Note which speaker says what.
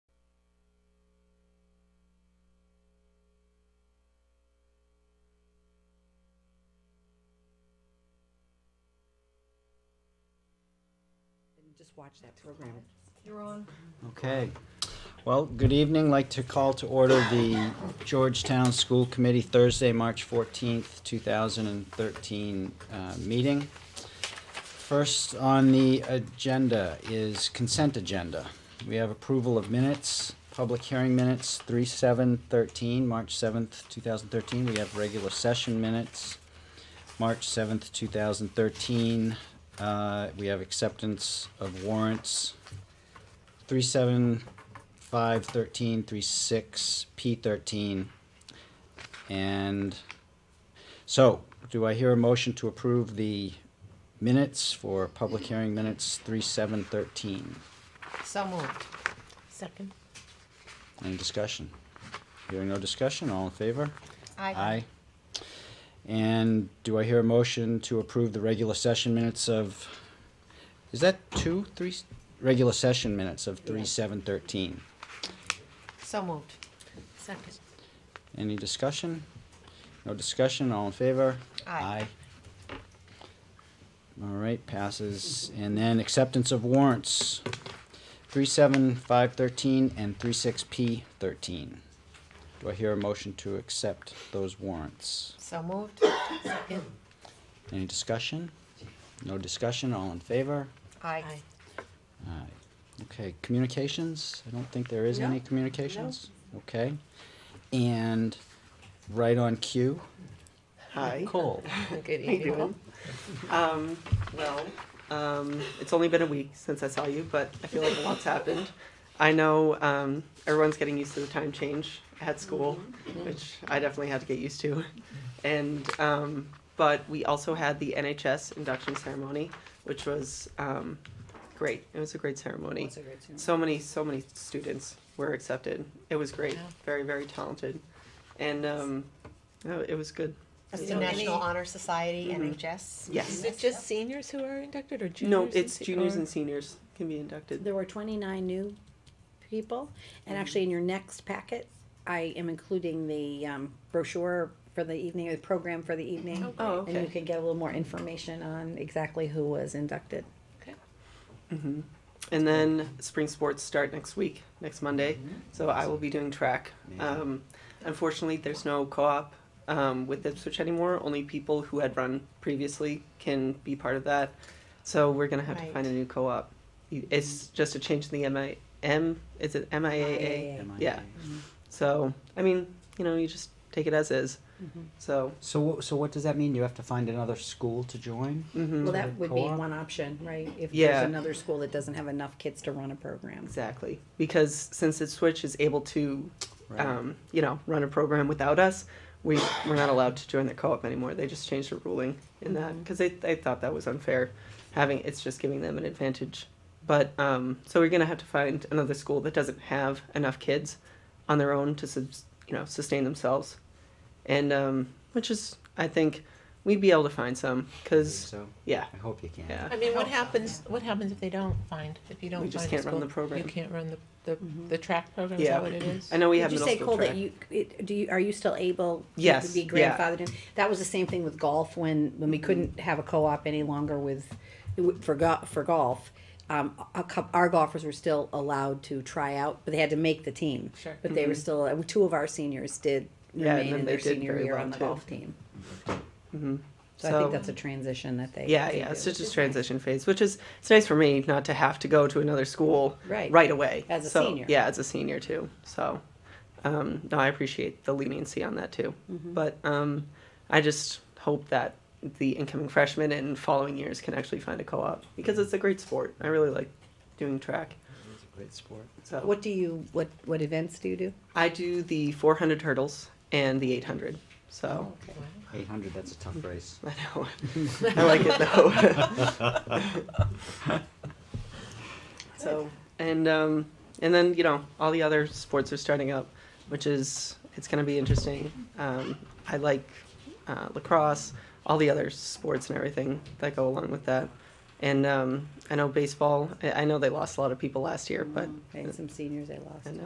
Speaker 1: Just watch that program.
Speaker 2: You're on.
Speaker 3: Okay. Well, good evening. Like to call to order the Georgetown School Committee Thursday, March 14th, 2013 uh, meeting. First on the agenda is consent agenda. We have approval of minutes, public hearing minutes, 3/7/13, March 7th, 2013. We have regular session minutes, March 7th, 2013. Uh, We have acceptance of warrants, three seven five thirteen three six P thirteen. And so, do I hear a motion to approve the minutes for public hearing minutes three seven thirteen?
Speaker 2: So moved.
Speaker 1: Second.
Speaker 3: Any discussion? Hearing no discussion, all in favor? Aye. And do I hear a motion to approve the regular session minutes of, is that two, three, s- regular session minutes of three
Speaker 1: Yeah.
Speaker 3: seven thirteen?
Speaker 2: So moved.
Speaker 1: Second.
Speaker 3: Any discussion? No discussion, all in favor?
Speaker 2: Aye.
Speaker 3: Aye. All right, passes. And then acceptance of warrants, three seven five thirteen and three six P thirteen. Do I hear a motion to accept those warrants?
Speaker 2: So moved.
Speaker 1: Second.
Speaker 3: Any discussion? No discussion, all in favor?
Speaker 2: Aye.
Speaker 3: Aye. Okay, communications? I don't think there is
Speaker 1: No.
Speaker 3: any communications? Okay. And right on cue,
Speaker 4: Hi.
Speaker 3: Cole.
Speaker 1: Good
Speaker 4: How you
Speaker 1: evening.
Speaker 4: doing? Um, well, um, it's only been a week since I saw you, but I feel like a lot's happened. I know um, everyone's getting used to the time change at school, which I definitely had to get used to. And um, but we also had the NHS induction ceremony, which was um, great. It was a great ceremony. So many, so many students were accepted. It was great.
Speaker 2: Yeah.
Speaker 4: Very, very talented, and um, oh, it was good.
Speaker 2: That's
Speaker 1: So
Speaker 2: the National
Speaker 1: any-
Speaker 2: Honor Society,
Speaker 4: Mhm.
Speaker 2: NHS.
Speaker 4: Yes.
Speaker 1: Is it just seniors who are inducted or juniors?
Speaker 4: No, it's
Speaker 1: se-
Speaker 4: juniors
Speaker 1: or-
Speaker 4: and seniors can be inducted.
Speaker 5: There were twenty-nine new people, and actually in your next packet, I am including the um, brochure for the evening, or the program for the evening.
Speaker 4: Oh,
Speaker 5: And you
Speaker 4: okay.
Speaker 5: can get a little more information on exactly who was inducted.
Speaker 4: And then spring sports start next week, next Monday. So I will be doing track. Um, unfortunately, there's no co-op um, with Ipswich anymore. Only people who had run previously can be part of that. So we're gonna have to
Speaker 2: Right.
Speaker 4: find a new co-op. It's just a change in the MI M. Is it MIAA?
Speaker 3: Am I-
Speaker 4: Yeah. So I mean, you know, you just take it as is. So
Speaker 3: So, wh- so what does that mean? You have to find another school to join?
Speaker 4: mhm,
Speaker 5: Well, that would be
Speaker 3: Co-op?
Speaker 5: one option, right? If
Speaker 4: Yeah.
Speaker 5: there's another school that doesn't have enough kids to run a program.
Speaker 4: exactly because since Ipswich is able to
Speaker 3: Right.
Speaker 4: um, you know, run a program without us, we we're not allowed to join the co-op anymore. They just changed the ruling in that
Speaker 3: Mm-hmm.
Speaker 4: because they they thought that was unfair, having it's just giving them an advantage. But um, so we're gonna have to find another school that doesn't have enough kids on their own to subs- you know sustain themselves, and um, which is I think we'd be able to find some because
Speaker 3: So,
Speaker 4: yeah
Speaker 3: I hope you can.
Speaker 4: yeah
Speaker 6: I mean, what happens, what happens if they don't find, if you don't
Speaker 4: We
Speaker 6: find a
Speaker 4: just
Speaker 6: school?
Speaker 4: can't run the program. Mm-hmm.
Speaker 6: You can't run the, the, the track program, is
Speaker 4: Yeah.
Speaker 6: that what it is?
Speaker 4: I know we have
Speaker 5: Did you
Speaker 4: middle
Speaker 5: say,
Speaker 4: school
Speaker 5: Cole, that
Speaker 4: track.
Speaker 5: you, it- do you, are you still able? to
Speaker 4: Yes,
Speaker 5: Be
Speaker 4: yeah. Mm-hmm.
Speaker 5: grandfathered in? That was the same thing with golf when, when we couldn't have a co-op any longer with, for go, for golf. Um, a cou- our golfers were still allowed to try out, but they had to make the team.
Speaker 6: Sure.
Speaker 5: But they were still, uh, two of our seniors did
Speaker 4: Mm-hmm. Yeah, and
Speaker 5: remain
Speaker 4: then
Speaker 5: in
Speaker 4: they
Speaker 5: their
Speaker 4: did
Speaker 5: senior
Speaker 4: very
Speaker 5: year
Speaker 4: well,
Speaker 5: on the
Speaker 4: too.
Speaker 5: golf team.
Speaker 4: Mhm.
Speaker 5: So I think that's a transition that they.
Speaker 4: Yeah,
Speaker 5: they
Speaker 4: yeah,
Speaker 5: do.
Speaker 4: it's just a transition phase, which is it's nice for me not to have to go to another school
Speaker 5: Right.
Speaker 4: away
Speaker 5: As a
Speaker 4: So,
Speaker 5: senior.
Speaker 4: Yeah, as a senior too. So, um, no, I appreciate the leniency on that too.
Speaker 5: Mm-hmm.
Speaker 4: But um, I just hope that the incoming freshmen and following years can actually find a co-op because it's a great sport. I really like doing track.
Speaker 3: It's a great sport.
Speaker 4: So
Speaker 5: What do you, what, what events do you do?
Speaker 4: I do the 400 hurdles and the 800. So
Speaker 6: Wow.
Speaker 3: 800, that's a tough race.
Speaker 4: I know I like it though. So and um, and then you know all the other sports are starting up, which is it's going to be interesting. Um, I like uh, lacrosse, all the other sports and everything that go along with that. And um, I know baseball. I, I know they lost a lot of people last year, but
Speaker 5: And some seniors they lost.
Speaker 4: and